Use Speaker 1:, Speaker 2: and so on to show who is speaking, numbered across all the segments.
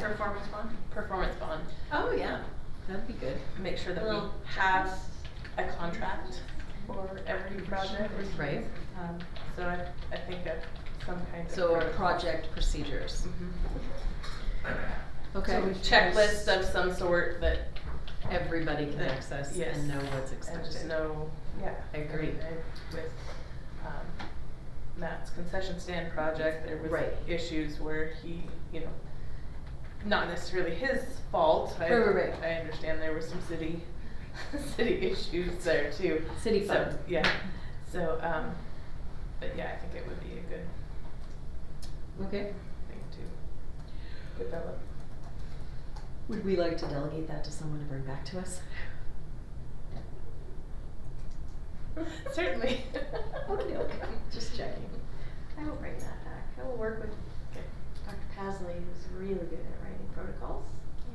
Speaker 1: performance bond?
Speaker 2: performance bond,
Speaker 3: Oh, yeah, that'd be good.
Speaker 2: make sure that we
Speaker 1: Little
Speaker 2: have a contract for every project.
Speaker 3: Right,
Speaker 2: Um, So I, I think of some kind of.
Speaker 3: so our
Speaker 2: protocol.
Speaker 3: project procedures,
Speaker 2: Mhm.
Speaker 3: okay.
Speaker 2: Checklist of some sort that,
Speaker 3: Everybody can
Speaker 2: that-
Speaker 3: access
Speaker 2: yes.
Speaker 3: and know what's
Speaker 2: And just
Speaker 3: expected.
Speaker 2: know, yeah.
Speaker 3: I agree.
Speaker 2: I- I- With, um, Matt's concession stand project, there was
Speaker 3: Right.
Speaker 2: issues where he, you know, not necessarily his fault. I-
Speaker 3: Right, right, right.
Speaker 2: I understand there were some city, city issues there too.
Speaker 3: City
Speaker 2: So,
Speaker 3: fund.
Speaker 2: Yeah, so, um, but yeah, I think it would be a good
Speaker 3: Okay,
Speaker 2: thing to develop.
Speaker 3: would we like to delegate that to someone to bring back to us?
Speaker 2: Certainly.
Speaker 3: Okay, okay, just checking.
Speaker 1: I will bring that back. I will work with
Speaker 2: Okay.
Speaker 1: Dr. Pasley, who's really good at writing protocols,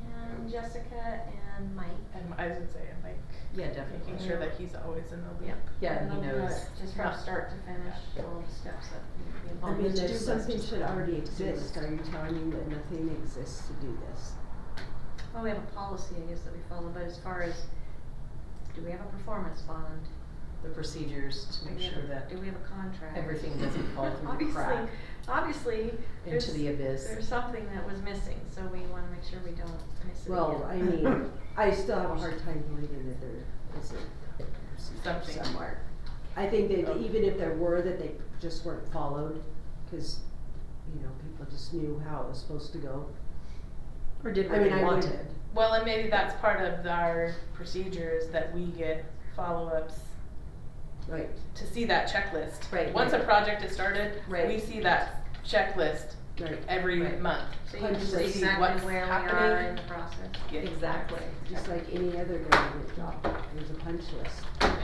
Speaker 1: Um, and Jessica and Mike.
Speaker 2: And I was gonna say, and like,
Speaker 3: Yeah, definitely.
Speaker 2: making sure that he's always in the
Speaker 1: Yeah.
Speaker 2: loop.
Speaker 3: Yeah,
Speaker 1: And
Speaker 3: he
Speaker 1: they'll do
Speaker 3: knows.
Speaker 1: it Just from
Speaker 2: Yeah.
Speaker 1: start to finish, all the steps that need to be
Speaker 4: I
Speaker 1: involved.
Speaker 4: mean, to
Speaker 3: there's
Speaker 4: do
Speaker 3: less
Speaker 4: something
Speaker 3: to
Speaker 4: should
Speaker 3: come.
Speaker 4: already exist, are you telling me that nothing exists to do this?
Speaker 1: Well, Oh, we have a policy, I guess, that we follow, but as far as, do we have a performance bond?
Speaker 3: The procedures to
Speaker 1: Do
Speaker 3: make
Speaker 1: we have
Speaker 3: sure
Speaker 1: a-
Speaker 3: that
Speaker 1: Do we have a contract?
Speaker 3: everything doesn't fall through the
Speaker 1: Obviously-
Speaker 3: crack
Speaker 1: Obviously,
Speaker 3: into
Speaker 1: there's-
Speaker 3: the abyss.
Speaker 1: There's something that was missing, so we wanna make sure we don't miss it
Speaker 4: Well, I
Speaker 1: again.
Speaker 4: mean, I still have a hard time believing that there isn't a procedure
Speaker 2: Something.
Speaker 4: somewhere. I think that
Speaker 2: Okay.
Speaker 4: even if there were, that they just weren't followed, cause, you know, people just knew how it was supposed to go.
Speaker 3: Or did
Speaker 4: I
Speaker 3: what
Speaker 4: mean,
Speaker 3: they
Speaker 4: I would,
Speaker 3: wanted.
Speaker 2: Well, and maybe that's part of our procedures that we get follow-ups
Speaker 4: right,
Speaker 2: to see that checklist.
Speaker 3: Right.
Speaker 2: Once a project is started,
Speaker 3: Right.
Speaker 2: we see that checklist
Speaker 4: right,
Speaker 2: every
Speaker 3: Right.
Speaker 2: month.
Speaker 1: So
Speaker 4: Punch
Speaker 1: you just
Speaker 4: list.
Speaker 1: exactly
Speaker 2: What's
Speaker 1: where we are
Speaker 2: happening?
Speaker 1: in the process.
Speaker 2: Yeah.
Speaker 3: Exactly.
Speaker 4: just like any other government job, there's a punch list.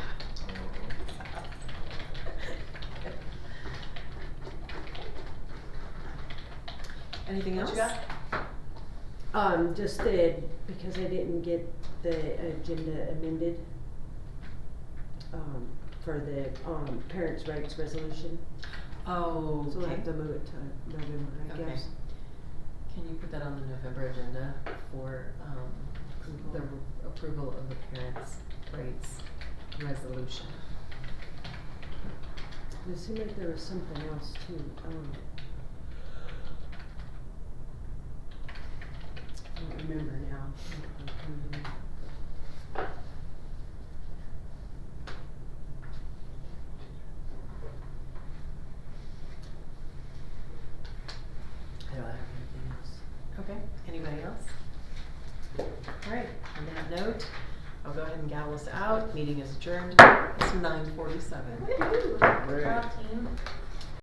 Speaker 3: Anything
Speaker 2: What
Speaker 3: else?
Speaker 2: you got?
Speaker 4: Um, just the, because I didn't get the agenda amended, um, for the, um, parents' rights resolution,
Speaker 3: Oh,
Speaker 4: so we'll
Speaker 3: okay.
Speaker 4: have to move it to November, I
Speaker 3: Okay.
Speaker 4: guess.
Speaker 3: Can you put that on the November agenda for, um,
Speaker 4: Approval.
Speaker 3: the approval of the parents' rights resolution?
Speaker 4: It seemed like there was something else too, um. I don't remember now.
Speaker 3: I don't have anything else. Okay, anybody else? Alright, on that note, I'll go ahead and gavel us out, meeting is adjourned, it's nine forty-seven.
Speaker 1: Woo-hoo.
Speaker 3: Right.
Speaker 1: Proud team.